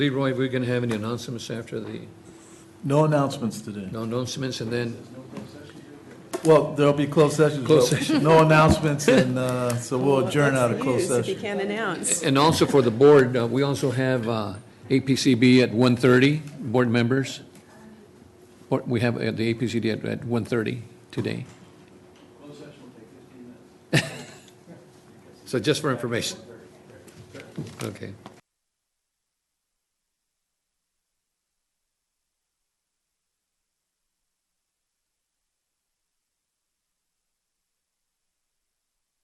Leroy, we're going to have any announcements after the, No announcements today. no announcements, and then, Well, there'll be closed sessions. Closed but No announcements, and uh, so we'll adjourn out of closed News, If you session. can't announce. and also for the board, uh, we also have uh, APCB at 1:30, board members. Or We have uh, the APCD at- at 1:30 today. So just for information. Okay.